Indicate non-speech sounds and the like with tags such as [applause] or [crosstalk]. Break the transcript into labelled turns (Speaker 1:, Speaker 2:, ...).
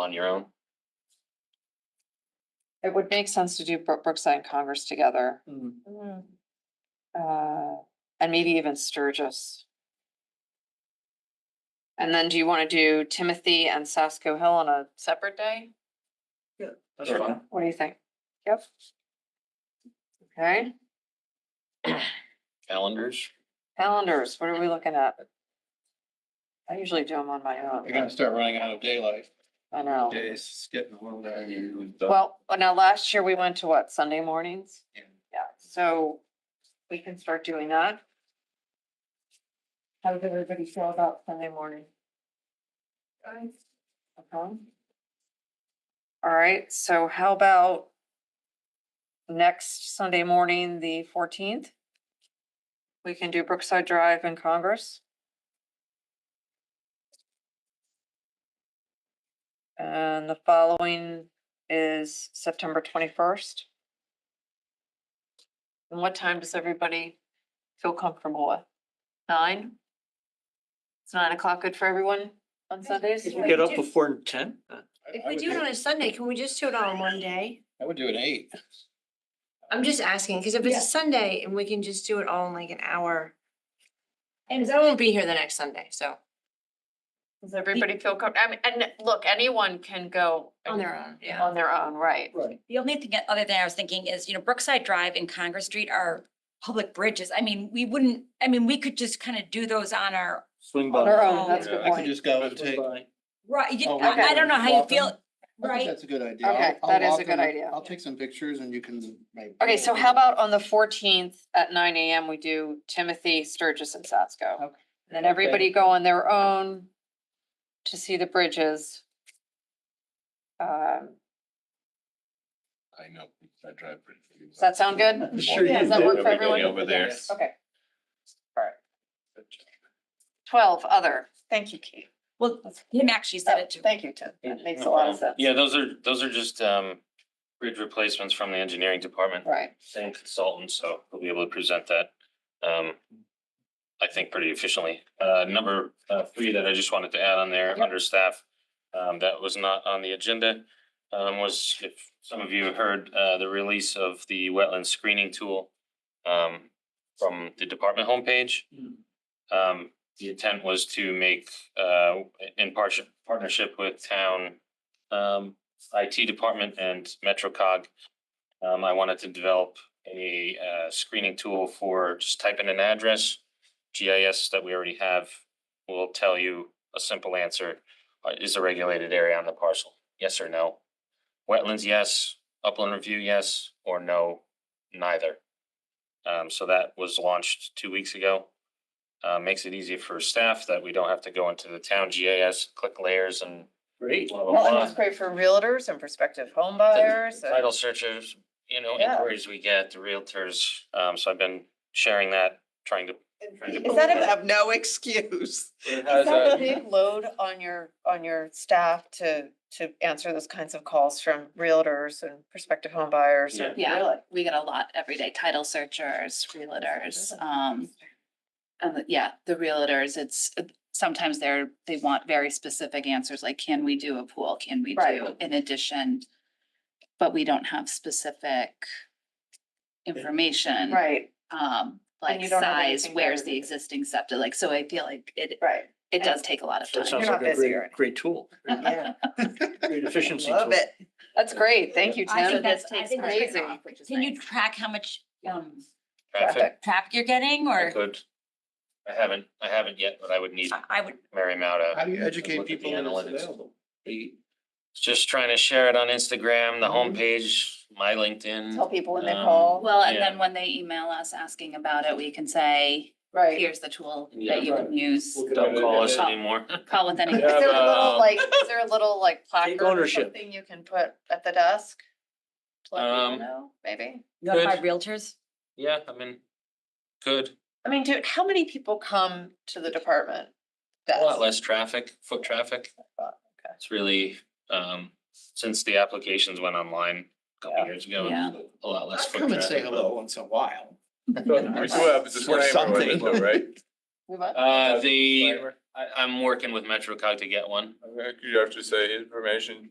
Speaker 1: on your own.
Speaker 2: It would make sense to do Brook- Brookside and Congress together,
Speaker 1: Hmm,
Speaker 2: uh, and maybe even Sturgis. And then do you want to do Timothy and Sasko Hill on a separate day?
Speaker 1: That's fine.
Speaker 2: What do you think? Yep. Okay,
Speaker 1: Calendars.
Speaker 2: calendars, what are we looking at? I usually do them on my
Speaker 3: You're gonna
Speaker 2: own,
Speaker 3: start running out of daylight.
Speaker 2: I know.
Speaker 3: Days, it's getting a little dark.
Speaker 2: Well, now last year we went to what, Sunday mornings?
Speaker 3: Yeah.
Speaker 2: uh, Yeah, so we can start doing that. How does everybody feel about Sunday morning? Guys. Okay. Uh-huh. All right, so how about next Sunday morning, the fourteenth? We can do Brookside Drive and Congress. And the following is September twenty-first. And what time does everybody feel comfortable with? Nine? It's nine o'clock good for everyone on Sundays?
Speaker 4: If
Speaker 5: you
Speaker 4: get up
Speaker 5: before ten?
Speaker 4: If we do it on a Sunday, can we just do it on one day?
Speaker 3: I would do an eight.
Speaker 4: I'm just asking, because if it's
Speaker 5: Yeah.
Speaker 4: a Sunday and we can just do it all in like an hour. And 'cause I won't be here the next Sunday, so
Speaker 2: Does everybody feel comfortable? I mean, and look, anyone can go.
Speaker 4: on their own, yeah.
Speaker 2: On their own, right.
Speaker 3: Right.
Speaker 5: The only thing, other thing I was thinking is, you know, Brookside Drive and Congress Street are public bridges. I mean, we wouldn't, I mean, we could just kind of do those on our,
Speaker 6: Swing
Speaker 2: On their
Speaker 6: by.
Speaker 2: own, that's a good
Speaker 3: I could
Speaker 2: point.
Speaker 3: just go and take.
Speaker 5: right, you-
Speaker 3: Oh, we
Speaker 5: I I don't know how you
Speaker 3: walk
Speaker 5: feel,
Speaker 3: them? I think
Speaker 5: right?
Speaker 3: That's a good idea.
Speaker 2: Okay,
Speaker 3: I'll- I'll
Speaker 2: that is a
Speaker 3: walk
Speaker 2: good
Speaker 3: them.
Speaker 2: idea.
Speaker 3: I'll take some pictures and you can. like-
Speaker 2: Okay, so how about on the fourteenth at nine AM, we do Timothy, Sturgis and Sasko? And
Speaker 3: Okay.
Speaker 2: then everybody go on their own to see the bridges. Um,
Speaker 3: I know, I drive pretty.
Speaker 2: Does that sound
Speaker 3: [laughs]
Speaker 2: good? Does that work for everyone?
Speaker 3: Yes.
Speaker 2: Okay. All right. Twelve, other. Thank you, Kate.
Speaker 5: Well, him actually said
Speaker 3: Oh,
Speaker 5: it too.
Speaker 2: Thank you, Tim. That makes a lot of
Speaker 3: [laughs]
Speaker 2: sense.
Speaker 1: Yeah, those are, those are just, um, bridge replacements from the engineering department,
Speaker 2: Right.
Speaker 1: same consultant, so we'll be able to present that. Um, I think pretty efficiently. Uh, number, uh, three that I just wanted to add on there,
Speaker 2: Yep.
Speaker 1: under staff, um, that was not on the agenda. Um, was if some of you have heard, uh, the release of the wetland screening tool, um, from the department homepage.
Speaker 6: hmm,
Speaker 1: Um, the intent was to make, uh, in partnership, partnership with town, um, IT department and MetroCog. Um, I wanted to develop a, uh, screening tool for just type in an address. GIS that we already have will tell you a simple answer. Uh, is a regulated area on the parcel? Yes or no? Wetlands, yes. Upland review, yes, or no, neither. Um, so that was launched two weeks ago uh, makes it easier for staff that we don't have to go into the town GIS, click layers and
Speaker 6: Great.
Speaker 1: blah,
Speaker 7: Well,
Speaker 1: blah,
Speaker 7: and
Speaker 1: blah.
Speaker 7: it's great for realtors and prospective home buyers. and-
Speaker 1: Title searches, you know,
Speaker 7: Yeah.
Speaker 1: inquiries we get, the realtors, um, so I've been sharing that, trying to.
Speaker 7: Is that a,
Speaker 8: have no excuse.
Speaker 7: is that a [laughs] big load on your, on your staff to, to answer those kinds of calls from realtors and prospective home buyers? and-
Speaker 8: Yeah, we get a lot every day, title searchers, realtors, um, and the- yeah, the realtors, it's, uh, sometimes they're, they want very specific answers, like, can we do a pool? Can we
Speaker 2: Right.
Speaker 8: do in addition? But we don't have specific information.
Speaker 2: Right,
Speaker 8: Um,
Speaker 2: you
Speaker 8: like
Speaker 2: don't have
Speaker 8: size,
Speaker 2: anything
Speaker 8: where's
Speaker 2: better
Speaker 8: the
Speaker 2: to do.
Speaker 8: existing septic, like, so I feel like it,
Speaker 2: right.
Speaker 8: it does take a lot of
Speaker 6: That
Speaker 8: time.
Speaker 6: sounds
Speaker 7: You're
Speaker 6: like
Speaker 7: not
Speaker 6: a
Speaker 7: busy
Speaker 6: great,
Speaker 7: or anything.
Speaker 6: great tool.
Speaker 7: Yeah.
Speaker 6: [laughs] Great efficiency tool.
Speaker 8: Love it.
Speaker 2: That's great. Thank you,
Speaker 5: I
Speaker 2: Tim.
Speaker 5: think that's, I
Speaker 8: takes
Speaker 5: think that's
Speaker 2: crazy.
Speaker 5: great. Can you track how much, um,
Speaker 1: Traffic,
Speaker 5: traffic you're getting
Speaker 1: I
Speaker 5: or?
Speaker 1: could, I haven't, I haven't yet, but I would need
Speaker 5: I- I would,
Speaker 1: Mary Mauda.
Speaker 3: How do you
Speaker 1: Look
Speaker 3: educate
Speaker 1: at the
Speaker 3: people when it's
Speaker 1: analytics.
Speaker 3: available?
Speaker 1: Just trying to share it on Instagram, the
Speaker 7: Mm-hmm.
Speaker 1: homepage, my LinkedIn.
Speaker 2: Tell people when they
Speaker 1: Um,
Speaker 2: call.
Speaker 8: Well, and
Speaker 1: Yeah.
Speaker 8: then when they email us asking about it, we can say,
Speaker 2: Right.
Speaker 8: here's the tool
Speaker 1: Yeah,
Speaker 8: that you can use,
Speaker 1: Don't call us anymore.
Speaker 8: call with any.
Speaker 2: Is there a
Speaker 1: Yeah, um,
Speaker 2: little
Speaker 1: but-
Speaker 2: like, is there a little
Speaker 1: [laughs]
Speaker 2: like placard or
Speaker 6: ownership.
Speaker 2: something?
Speaker 7: Something you can put at the desk? To let people
Speaker 1: Um,
Speaker 7: know, maybe?
Speaker 5: notify
Speaker 1: Good.
Speaker 5: realtors?
Speaker 1: Yeah, I mean, good,
Speaker 7: I mean, dude, how many people come to the department?
Speaker 1: a lot
Speaker 7: desk?
Speaker 1: less traffic, foot traffic. It's really, um, since the applications went online a couple
Speaker 7: Yeah.
Speaker 1: years ago,
Speaker 8: Yeah.
Speaker 1: a lot less.
Speaker 3: I'll
Speaker 1: foot
Speaker 3: Come and say
Speaker 1: traffic.
Speaker 3: hello once in a while.
Speaker 9: But We do have a disclaimer with it though, right?
Speaker 2: We might-
Speaker 1: [laughs] Uh, the,
Speaker 9: Disclaimer.
Speaker 1: I, I'm working with MetroCog to get one.
Speaker 9: I could actually say information